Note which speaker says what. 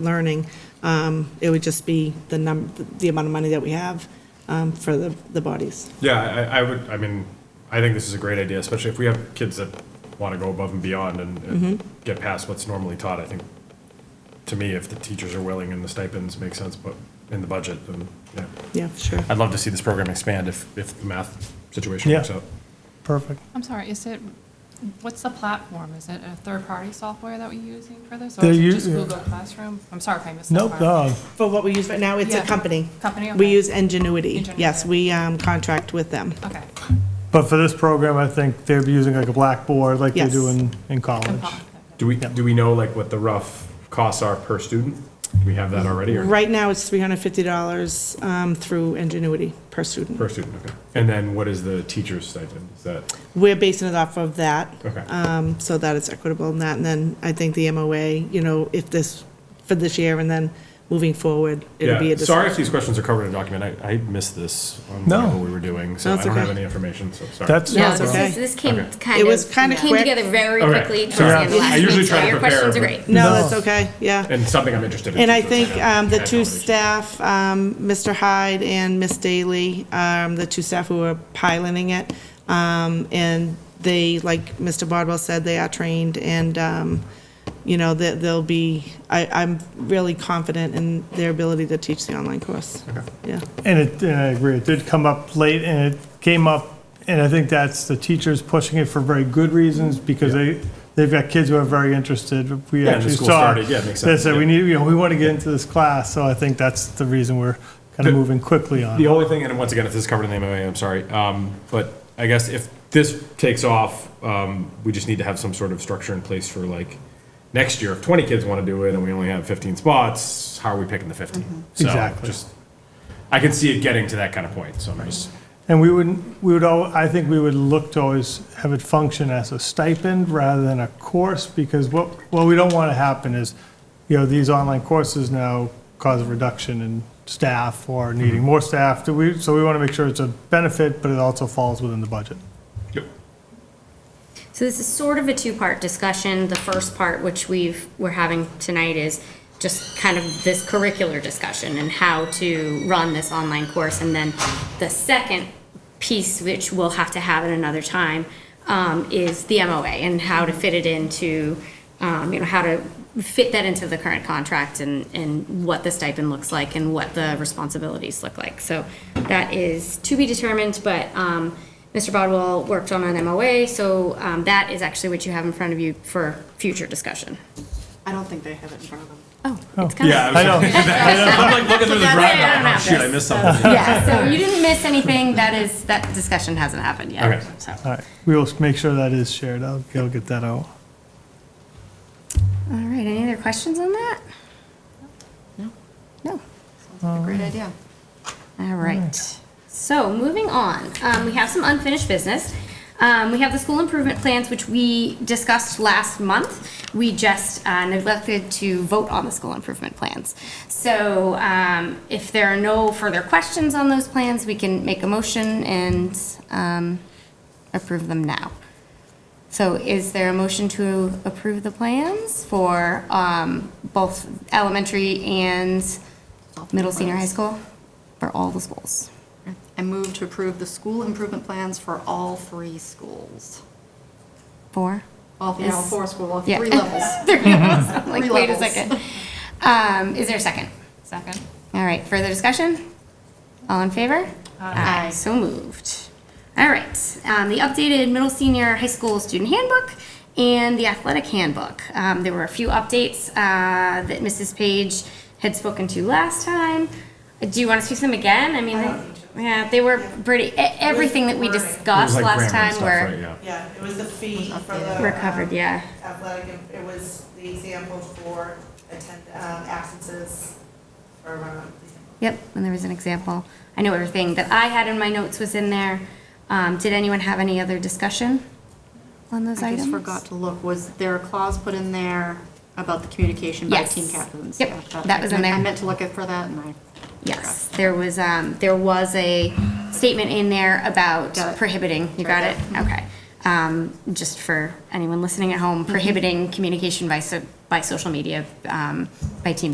Speaker 1: learning. Um, It would just be the num, the amount of money that we have um, for the, the bodies.
Speaker 2: Yeah, I, I would, I mean, I think this is a great idea, especially if we have kids that want to go above and beyond and, and get past what's normally taught. I think, to me, if the teachers are willing and the stipends make sense, but in the budget, then, yeah.
Speaker 1: Yeah, sure.
Speaker 2: I'd love to see this program expand if, if the math situation
Speaker 3: Yeah.
Speaker 2: works out.
Speaker 3: Perfect.
Speaker 4: I'm sorry, is it, what's the platform? Is it a third-party software that we're using for this? Or
Speaker 3: They're
Speaker 4: is it
Speaker 3: u-
Speaker 4: just Google Classroom? I'm sorry if I missed that
Speaker 3: Nope,
Speaker 4: part.
Speaker 3: uh,
Speaker 1: For what we use right now, it's a
Speaker 4: Yeah.
Speaker 1: company.
Speaker 4: Company,
Speaker 1: We
Speaker 4: okay.
Speaker 1: use Ingenuity. Yes,
Speaker 4: Ingenuity.
Speaker 1: we um, contract with them.
Speaker 4: Okay.
Speaker 3: but for this program, I think they're using like a blackboard like they
Speaker 1: Yes.
Speaker 3: do in, in college.
Speaker 4: Compile.
Speaker 2: Do we, do we know, like, what the rough costs are per student? Do we have that already, or
Speaker 1: Right now, it's $350 um, through Ingenuity per student.
Speaker 2: per student, okay? And then what is the teacher's stipend? Is that,
Speaker 1: We're basing it off of that.
Speaker 2: okay?
Speaker 1: um, so that it's equitable and that, and then I think the MOA, you know, if this, for this year and then moving forward, it'll be
Speaker 2: Yeah,
Speaker 1: a
Speaker 2: sorry
Speaker 1: discussion.
Speaker 2: if these questions are covered in a document, I, I missed this on
Speaker 3: No.
Speaker 2: whatever we were doing, so
Speaker 1: No,
Speaker 2: I
Speaker 1: it's
Speaker 2: don't have
Speaker 1: okay.
Speaker 2: any information, so sorry.
Speaker 3: That's
Speaker 1: No,
Speaker 3: not
Speaker 1: it's
Speaker 3: wrong.
Speaker 1: okay.
Speaker 5: This, this came
Speaker 2: Okay.
Speaker 5: kind
Speaker 1: It
Speaker 5: of.
Speaker 1: was kinda
Speaker 5: Came
Speaker 1: quick.
Speaker 5: together very
Speaker 2: Okay.
Speaker 5: quickly towards
Speaker 2: Sorry.
Speaker 5: the end of
Speaker 2: I
Speaker 5: last
Speaker 2: usually
Speaker 5: week, so
Speaker 2: try to
Speaker 5: your
Speaker 2: prepare,
Speaker 5: questions are
Speaker 2: but-
Speaker 5: great.
Speaker 1: No,
Speaker 3: No.
Speaker 1: it's okay, yeah.
Speaker 2: And something I'm interested in.
Speaker 1: And I
Speaker 2: so it's
Speaker 1: think
Speaker 2: like a-
Speaker 1: um, the two
Speaker 2: a combination.
Speaker 1: staff, um, Mr. Hyde and Miss Daly, um, the two staff who are piloting it, um, and they, like Mr. Bardwell said, they are trained, and, um, you know, that they'll be, I, I'm really confident in their ability to teach the online course. Yeah,
Speaker 3: And it, and I agree, it did come up late and it came up, and I think that's the teachers pushing it for very good reasons because they, they've got kids who are very interested. We
Speaker 2: Yeah, and the
Speaker 3: actually
Speaker 2: school
Speaker 3: saw.
Speaker 2: started, yeah, it makes
Speaker 3: They
Speaker 2: sense,
Speaker 3: said, we
Speaker 2: yeah.
Speaker 3: need, you know, we want to get into this class, so I think that's the reason we're kind
Speaker 2: The-
Speaker 3: of moving quickly on
Speaker 2: The
Speaker 3: it.
Speaker 2: only thing, and once again, if this is covered in the MOA, I'm sorry, um, but I guess if this takes off, um, we just need to have some sort of structure in place for like, next year, if twenty kids wanna do it and we only have fifteen spots, how are we picking the
Speaker 1: Mm-hmm.
Speaker 2: fifteen? So,
Speaker 3: Exactly.
Speaker 2: just- I can see it getting to that kind of point, so I'm just,
Speaker 3: And we wouldn't, we would, al- I think we would look to always have it function as a stipend rather than a course, because what, what we don't want to happen is, you know, these online courses now cause a reduction in staff or needing more staff. Do we, so we want to make sure it's a benefit, but it also falls within the budget.
Speaker 2: Yep.
Speaker 5: So this is sort of a two-part discussion. The first part, which we've, we're having tonight, is just kind of this curricular discussion and how to run this online course. And then the second piece, which we'll have to have at another time, um, is the MOA and how to fit it into, um, you know, how to fit that into the current contract and, and what the stipend looks like and what the responsibilities look like. So that is to be determined, but, um, Mr. Bodwell worked on an MOA, so um, that is actually what you have in front of you for future discussion.
Speaker 6: I don't think they have it in front of them.
Speaker 5: Oh, it's kind
Speaker 2: yeah.
Speaker 5: of.
Speaker 2: I know. I'm like looking through the
Speaker 5: That's
Speaker 2: drive,
Speaker 5: why I don't
Speaker 2: like, oh,
Speaker 5: have
Speaker 2: shoot, I
Speaker 5: this.
Speaker 2: missed something.
Speaker 5: Yeah, so you didn't miss anything. That is, that discussion hasn't happened yet.
Speaker 2: Okay.
Speaker 5: so.
Speaker 3: All right, we will make sure that is shared. I'll, I'll get that out.
Speaker 5: All right, any other questions on that? No. No.
Speaker 6: Great idea.
Speaker 5: All right. So moving on, um, we have some unfinished business. Um, we have the school improvement plans, which we discussed last month. We just uh, neglected to vote on the school improvement plans. So um, if there are no further questions on those plans, we can make a motion and um, approve them now. So is there a motion to approve the plans for um, both elementary and middle senior high school? For all the schools?
Speaker 6: I move to approve the school improvement plans for all three schools.
Speaker 5: Four?
Speaker 6: All, you know, four school, all
Speaker 5: Yeah.
Speaker 6: three levels.
Speaker 5: Three levels. I'm Like,
Speaker 6: Three
Speaker 5: wait a
Speaker 6: levels.
Speaker 5: second. Um, Is there a second?
Speaker 4: Second?
Speaker 5: All right, further discussion? All in favor? Aye. So moved. All right, um, the updated middle senior high school student handbook and the athletic handbook. Um, There were a few updates uh, that Mrs. Page had spoken to last time. Do you want to speak to them again? I mean, yeah, they were pretty, e- everything that we discussed
Speaker 2: It was like grammar and
Speaker 5: last time
Speaker 2: stuff, right,
Speaker 5: were
Speaker 2: yeah.
Speaker 1: Yeah, it was the fee for the.
Speaker 5: were covered,
Speaker 1: um,
Speaker 5: yeah.
Speaker 1: Athletic, it was the example for attend, um, absences for, um,
Speaker 5: Yep, and there was an example. I know everything that I had in my notes was in there. Um, did anyone have any other discussion on those
Speaker 6: I
Speaker 5: items?
Speaker 6: just forgot to look, was there a clause put in there about the communication by
Speaker 5: Yes.
Speaker 6: team captains?
Speaker 5: Yep,
Speaker 6: Yeah, I thought-
Speaker 5: that was in there.
Speaker 6: I meant to look at for that and I,
Speaker 5: Yes, there was, um, there was a statement in there about
Speaker 6: Got it. Mm-hmm.
Speaker 5: prohibiting, you got it? Okay. Um, just
Speaker 6: Mm-hmm.
Speaker 5: for anyone listening at home, prohibiting communication by so, by social media, um, by team